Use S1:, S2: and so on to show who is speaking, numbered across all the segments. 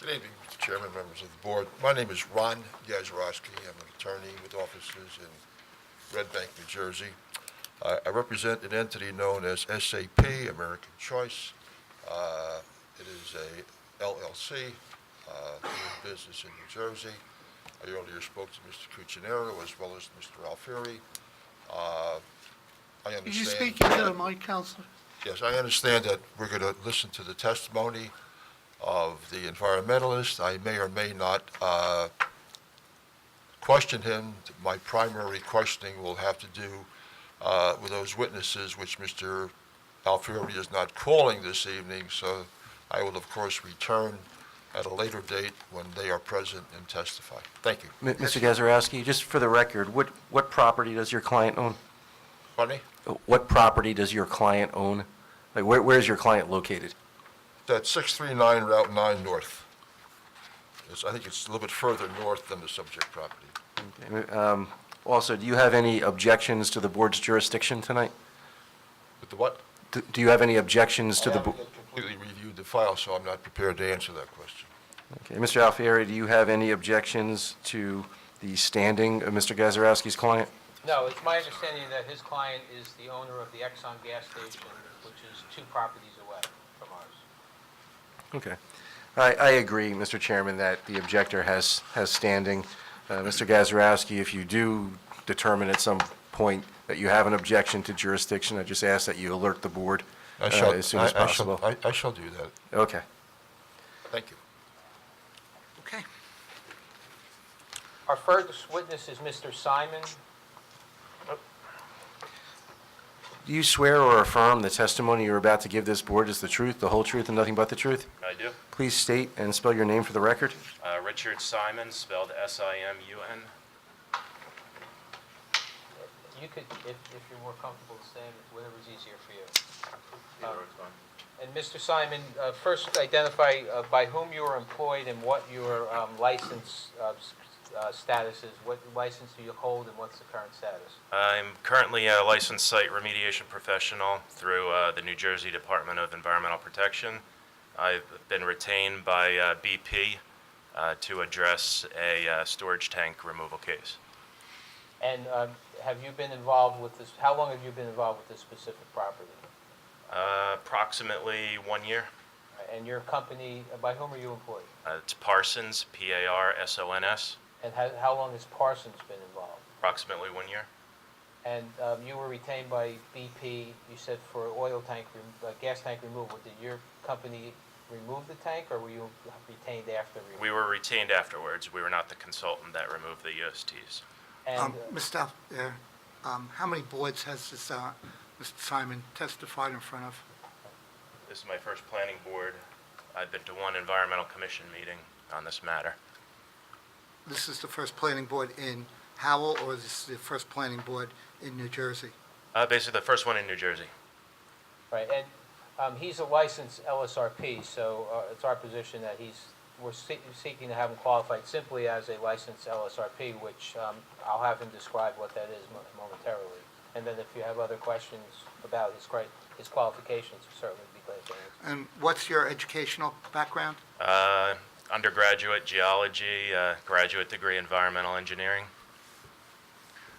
S1: Good evening, Mr. Chairman, members of the board. My name is Ron Yazrowski. I'm an attorney with offices in Red Bank, New Jersey. I I represent an entity known as SAP, American Choice. Uh, It is a LLC, uh, doing business in New Jersey. I earlier spoke to Mr. Cuccinero as well as Mr. Alfieri. Uh, I understand...
S2: Could you speak into the mic, Counselor?
S1: Yes, I understand that we're going to listen to the testimony of the environmentalist. I may or may not uh, question him. My primary questioning will have to do uh, with those witnesses, which Mr. Alfieri is not calling this evening, so I will, of course, return at a later date when they are present and testify. Thank you.
S3: M- Mr. Gazarovski, just for the record, what, what property does your client own?
S1: Pardon me?
S3: What property does your client own? Like, where, where is your client located?
S1: That's 639 Route 9 North. It's- I think it's a little bit further north than the subject property.
S3: Um, Also, do you have any objections to the board's jurisdiction tonight?
S1: With the what?
S3: Do do you have any objections to
S1: I
S3: the? bo-
S1: haven't completely reviewed the file, so I'm not prepared to answer that question.
S3: Okay, Mr. Alfieri, do you have any objections to the standing of Mr. Gazarovski's client?
S4: No, it's my understanding that his client is the owner of the Exxon gas station, which is two properties away from ours.
S3: Okay. I, I agree, Mr. Chairman, that the objector has, has standing. Uh, Mr. Gazarovski, if you do determine at some point that you have an objection to jurisdiction, I just ask that you alert the board uh,
S1: I shall,
S3: as soon as
S1: I- I shall-
S3: possible.
S1: I I shall do that.
S3: Okay.
S1: Thank you.
S2: Okay.
S4: Our first witness is Mr. Simon.
S3: Do you swear or affirm the testimony you're about to give this board is the truth, the whole truth, and nothing but the truth?
S5: I do.
S3: Please state and spell your name for the record.
S5: Uh, Richard Simon, spelled S-I-M-U-N.
S4: You could, if, if you're more comfortable saying it, whatever's easier for you. And Mr. Simon, uh, first identify uh, by whom you are employed and what your um, license uh, s- uh, status is. What license do you hold and what's the current status?
S5: I'm currently a licensed site remediation professional through uh, the New Jersey Department of Environmental Protection. I've been retained by uh, BP uh, to address a uh, storage tank removal case.
S4: And um, have you been involved with this, how long have you been involved with this specific property?
S5: Uh, Approximately one year.
S4: And your company, by whom are you employed?
S5: Uh, It's Parsons, P-A-R-S-O-N-S,
S4: And how, how long has Parsons been involved?
S5: approximately one year.
S4: And um, you were retained by BP, you said for oil tank, rem- uh, gas tank removal. Did your company remove the tank or were you retained after? removal?
S5: We were retained afterwards. We were not the consultant that removed the USTs.
S4: And
S2: Um,
S4: uh,
S2: Mr. Al- there, um, how many boards has this, uh, Mr. Simon testified in front of?
S5: This is my first planning board. I've been to one environmental commission meeting on this matter.
S2: This is the first planning board in Howell, or this is the first planning board in New Jersey?
S5: Uh, basically, the first one in New Jersey.
S4: Right, and um, he's a licensed LSRP, so uh, it's our position that he's, we're see- seeking to have him qualified simply as a licensed LSRP, which um, I'll have him describe what that is mo- momentarily. And then if you have other questions about his cri- his qualifications, certainly be glad to answer.
S2: And what's your educational background?
S5: Uh, undergraduate geology, uh, graduate degree environmental engineering.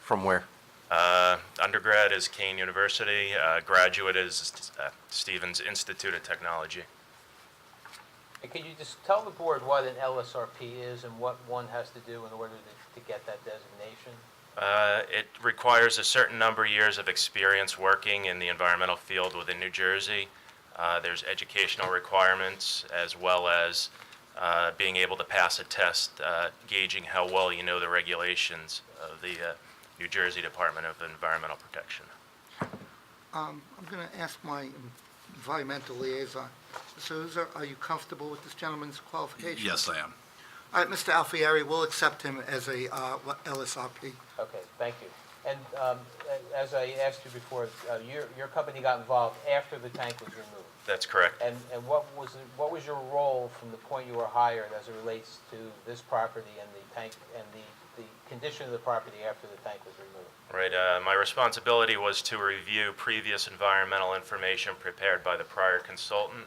S3: From where?
S5: Uh, undergrad is Kane University. Uh, graduate is uh, Stevens Institute of Technology.
S4: And Could you just tell the board what an LSRP is and what one has to do in order to to get that designation?
S5: Uh, It requires a certain number of years of experience working in the environmental field within New Jersey. Uh, There's educational requirements as well as uh, being able to pass a test uh, gauging how well you know the regulations of the uh, New Jersey Department of Environmental Protection.
S2: Um, I'm going to ask my environmental liaison. Mr. Huzza, are you comfortable with this gentleman's qualifications?
S6: Yes, I am.
S2: All right, Mr. Alfieri, we'll accept him as a uh, LSRP.
S4: Okay, thank you. And um, a- as I asked you before, uh, your your company got involved after the tank was removed.
S5: That's correct.
S4: And, and what was, the- what was your role from the point you were hired as it relates to this property and the tank, and the, the condition of the property after the tank was removed?
S5: Right, uh, my responsibility was to review previous environmental information prepared by the prior consultant